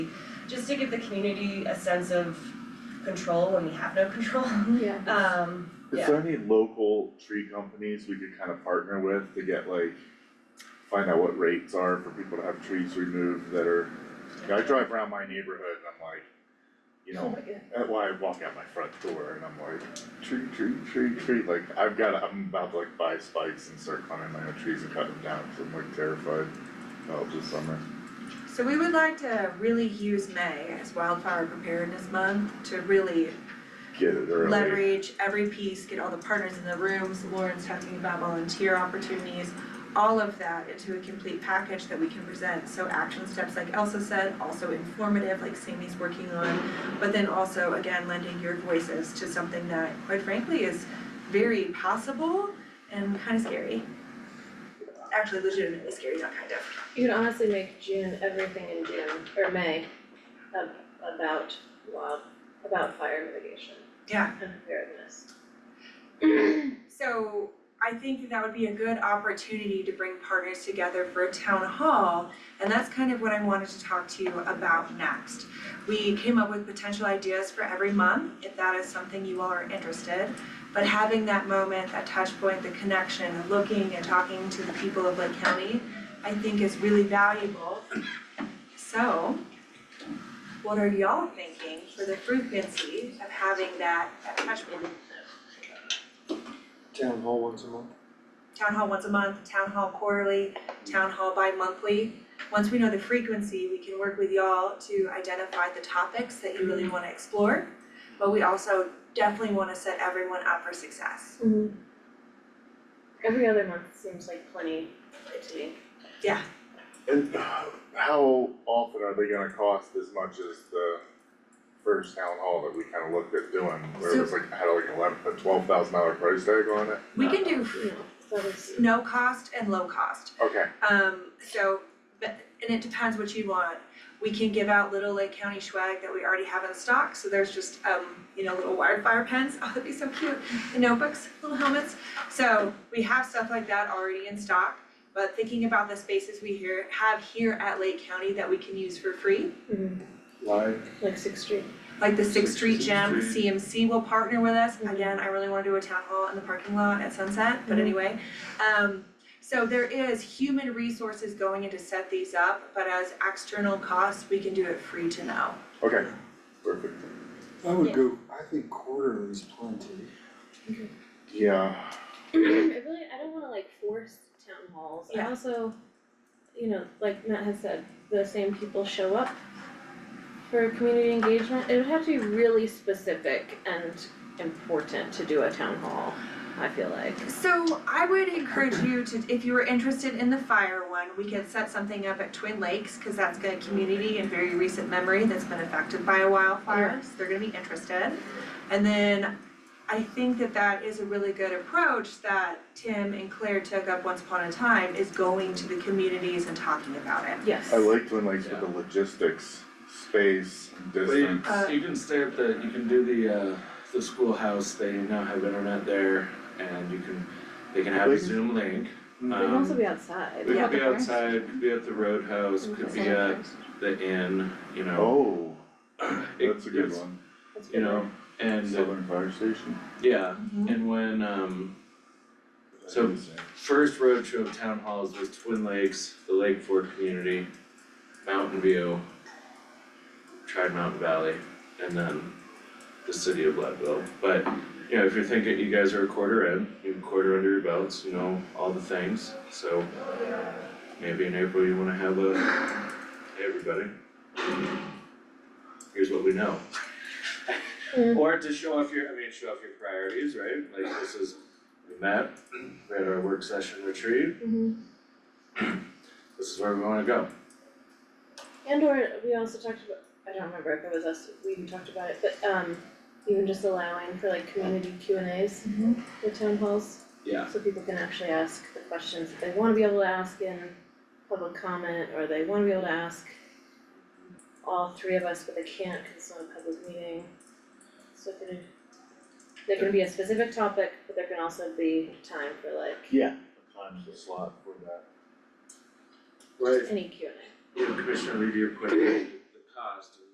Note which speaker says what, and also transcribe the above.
Speaker 1: just to give the community a sense of control when we have no control.
Speaker 2: Yeah.
Speaker 1: Um,
Speaker 3: Is there any local tree companies we could kind of partner with to get like, find out what rates are for people to have trees removed that are, you know, I drive around my neighborhood and I'm like, you know, that's why I walk out my front door and I'm like, tree, tree, tree, tree, like, I've gotta, I'm about to like buy spikes and start climbing my own trees and cut them down, cause I'm like terrified of the summer.
Speaker 4: So we would like to really use May as wildfire preparedness month to really
Speaker 3: Get it early.
Speaker 4: leverage every piece, get all the partners in the rooms, Lauren's talking about volunteer opportunities, all of that into a complete package that we can present, so action steps like Elsa said, also informative like Sammy's working on, but then also again lending your voices to something that quite frankly is very possible and kind of scary. Actually legitimately scary, not kind of.
Speaker 2: You could honestly make June, everything in June, or May, ab- about wild, about fire mitigation.
Speaker 4: Yeah.
Speaker 2: And preparedness.
Speaker 4: So I think that would be a good opportunity to bring partners together for a town hall. And that's kind of what I wanted to talk to you about next. We came up with potential ideas for every month, if that is something you all are interested. But having that moment, that touch point, the connection, and looking and talking to the people of Lake County, I think is really valuable. So what are y'all thinking for the frequency of having that, that touch point?
Speaker 5: town hall once a month.
Speaker 4: town hall once a month, town hall quarterly, town hall bi-monthly. Once we know the frequency, we can work with y'all to identify the topics that you really wanna explore. But we also definitely wanna set everyone up for success.
Speaker 2: Mhm. Every other month seems like plenty to me.
Speaker 3: And how often are they gonna cost as much as the first town hall that we kinda looked at doing, where it was like, had like eleven, a twelve thousand dollar price tag on it?
Speaker 4: We can do
Speaker 2: No, that was,
Speaker 4: no cost and low cost.
Speaker 3: Okay,
Speaker 4: Um, so, but, and it depends what you want. We can give out little Lake County swag that we already have in stock, so there's just, um, you know, little wildfire pens, oh, that'd be so cute, and notebooks, little helmets. So we have stuff like that already in stock, but thinking about the spaces we here, have here at Lake County that we can use for free,
Speaker 2: mhm,
Speaker 5: Live,
Speaker 2: like Sixth Street.
Speaker 4: like the Sixth Street Gym,
Speaker 3: Sixth
Speaker 4: CMC will partner with us.
Speaker 2: Mhm.
Speaker 4: Again, I really wanna do a town hall in the parking lot at Sunset, but
Speaker 2: Mhm.
Speaker 4: anyway. Um, so there is human resources going in to set these up, but as external costs, we can do it free to know.
Speaker 3: okay, perfect.
Speaker 5: I
Speaker 2: Yeah.
Speaker 5: would go, I think quarterly is plenty.
Speaker 3: Yeah,
Speaker 2: I really, I don't wanna like force town halls, I
Speaker 4: Yeah.
Speaker 2: also, you know, like Matt has said, the same people show up for community engagement, it would have to be really specific and important to do a town hall, I feel like.
Speaker 4: So I would encourage you to, if you were interested in the fire one, we could set something up at Twin Lakes, cause that's got a community in very recent memory that's been affected by a wildfire, so they're gonna be interested. And then I think that that is a really good approach that Tim and Claire took up once upon a time, is going to the communities and talking about it.
Speaker 2: Yes.
Speaker 3: I liked when like with the logistics, space, distance.
Speaker 4: Uh,
Speaker 6: But you, you can stay at the, you can do the, uh, the schoolhouse, they now have internet there, and you can, they can have a
Speaker 3: Like-
Speaker 6: Zoom link.
Speaker 5: Mm.
Speaker 2: It can also
Speaker 6: Um,
Speaker 2: be outside.
Speaker 6: It
Speaker 2: Yeah.
Speaker 6: could be outside, could be at the roadhouse, could be uh, at the inn, you know.
Speaker 3: Oh,
Speaker 6: It-
Speaker 3: that's a good
Speaker 6: it's-
Speaker 3: one,
Speaker 2: That's
Speaker 6: You
Speaker 2: good.
Speaker 6: know, and, uh,
Speaker 3: Southern Fire Station.
Speaker 6: yeah,
Speaker 4: Mhm.
Speaker 6: and when, um, So- first road trip of town halls was Twin Lakes, the Lake Ford community, Mountain View, tried Mountain Valley, and then the city of Leadville. But, you know, if you're thinking you guys are a quarter in, you have a quarter under your belts, you know, all the things, so maybe in April you wanna have a, hey, everybody. Here's what we know.
Speaker 2: Mm.
Speaker 6: Or to show off your, I mean, show off your priorities, right? Like this is, we met, we had our work session retreat,
Speaker 2: Mhm.
Speaker 6: this is where we wanna go.
Speaker 2: And or we also talked about, I don't remember if it was us, we even talked about it, but um even just allowing for like community Q and As
Speaker 4: Mhm.
Speaker 2: with town halls.
Speaker 6: Yeah.
Speaker 2: So people can actually ask the questions that they wanna be able to ask in public comment, or they wanna be able to ask all three of us, but they can't cause it's not a public meeting. So it can, there can be a specific topic, but there can also be time for like
Speaker 6: Time's the slot for that. Right,
Speaker 2: any Q and A.
Speaker 6: you know, Commissioner Levy, you put the cost and